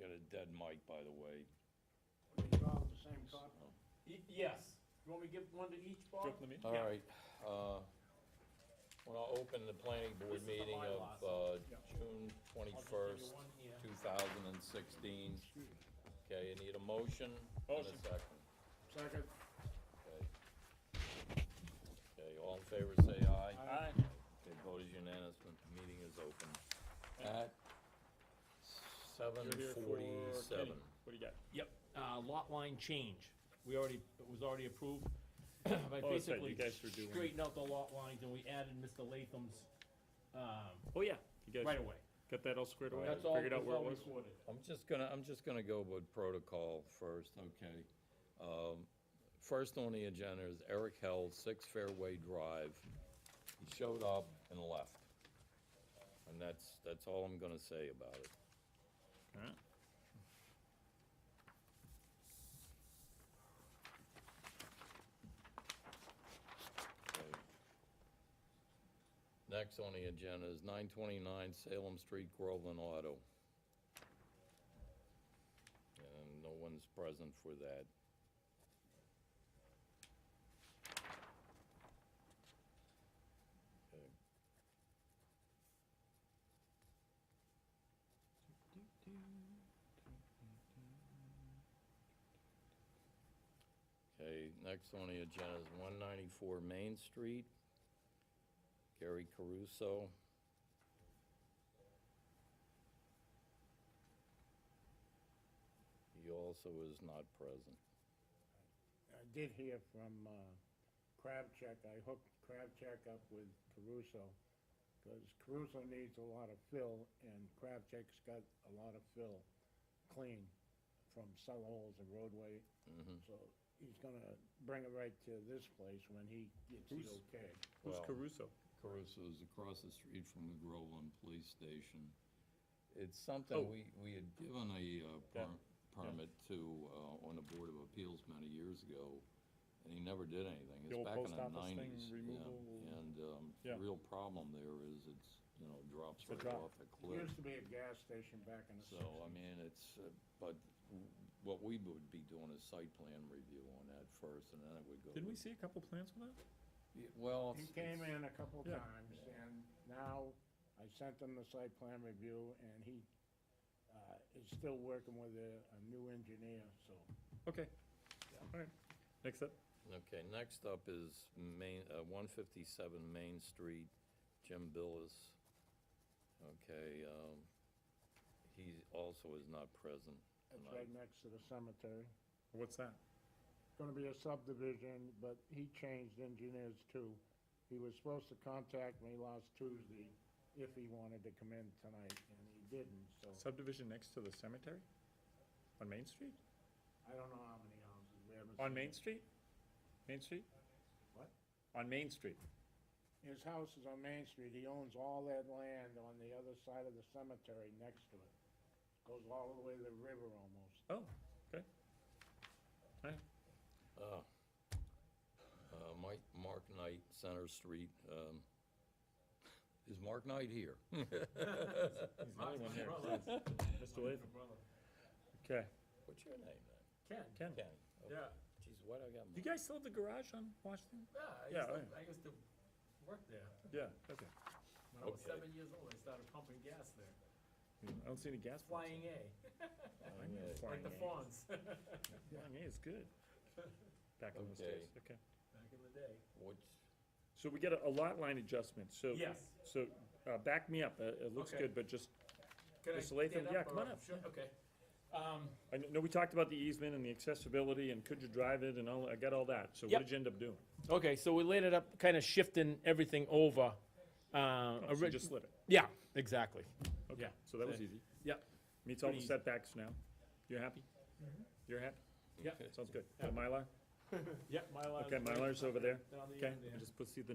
got a dead mic, by the way. We draw on the same card. Y- yes. You want me to give one to each, Bob? Drop them in? All Yeah. right, uh, when I open the planning board This is the meeting of, bylaws. uh, Yeah. June I'll just give you twenty-first, one here. two thousand and sixteen. Okay, you need a motion and a Motion. second, Second. okay? Okay, all in favor, say aye. Aye. Okay, vote is unanimous, the meeting is open. Thank you. At seven You're here for Kenny. forty-seven. What do you got? Yep, uh, lot line change. We already, it was already approved. I Oh, that's right, basically you guys were doing- straightened out the lot lines and we added Mr. Latham's, um, Oh, yeah. You guys right away. got that all squared away? That's all, Figured that's out where it all was? recorded. I'm just gonna, I'm just gonna go with protocol first, okay? Um, First on the agenda is Eric Held, Six Fairway Drive. He showed up and left. And that's, that's all I'm gonna say about it. Alright. Okay. Next on the agenda is nine twenty-nine Salem Street, Groveland Auto. And Um, no one's present for that. Okay. Okay, next on the agenda is one ninety-four Main Street, Gary Caruso. He also is not present. I did hear from, uh, Crabcheck, I hooked Crabcheck up with Caruso, because Caruso needs a lot of fill, and Crabcheck's got a lot of fill clean from cell holes and roadway. Mm-hmm. So he's gonna bring it right to this place when he gets the Who's- okay. Who's Well- Caruso? Caruso's across the street from the Groveland Police Station. It's Oh. something we, we had given a uh, Yeah, per- permit to, uh, on the Board of Appeals many years ago, and he never did anything. The It's old back in post the office thing, nineties. removal. And, um, the Yeah. real problem there is it's, you know, drops a right drop. off a It cliff. used to be a gas station back in the So, sixties. I mean, it's, uh, but what we would be doing is site plan review on that first, and then it would go. Didn't we to- see a couple plans on that? Yeah, Well. He it's- came it's- in a couple Yeah. times, and now I sent him the site plan review, and he, uh, is still working with a, a new engineer, so. Okay. Alright. Next up. Okay, next up is Main, uh, one fifty-seven Main Street, Jim Billis. Okay, um, he also is not present. It's tonight. right next to the cemetery. What's that? Gonna be a subdivision, but he changed engineers too. He was supposed to contact me last Tuesday if he wanted to come in tonight, and he didn't, so. Subdivision next to the cemetery? On Main Street? I don't know how many houses we haven't On seen. Main Street? Main Street? What? On Main Street. His house is on Main Street, he owns all that land on the other side of the cemetery next to it. Goes all the way to the river almost. Oh, okay. Alright. Uh, uh, Mike, Mark Knight, Center Street, um, is Mark Knight here? There's another one here. Mr. Latham. Okay. What's your name then? Ken, Ken, Kenny? Okay. yeah, Geez, what I got? you guys still have the garage on Washington? yeah, I Yeah, used to, yeah. I used to work there. Yeah, okay. When I was Okay. seven years old, I started pumping gas there, I don't see any gas. pumps. flying A, I know, Okay. Flying like the A. fawns, back Flying A is good. Back on those days, okay. in the day. What's, So we get a a lot line adjustment, so. Yes. So, uh, back me up, it, it looks Okay. good, but just, Can I Mr. Latham, stand yeah, come or- on up. Sure, okay. Um, I kn- know we talked about the easement and the accessibility and could you drive it and all, I got all that, so what Yep. did you end up doing? okay, so we laid it up, kinda shifting everything over, uh, Oh, so you just slid it, yeah, exactly, okay, so that was easy. yep. Meets all the Pretty easy. setbacks now, you're happy? You're happy? Yep. Sounds good, Uh, Mylar, Yep, Mylar. okay, Mylar's over there, Down the okay, end there. and just proceed the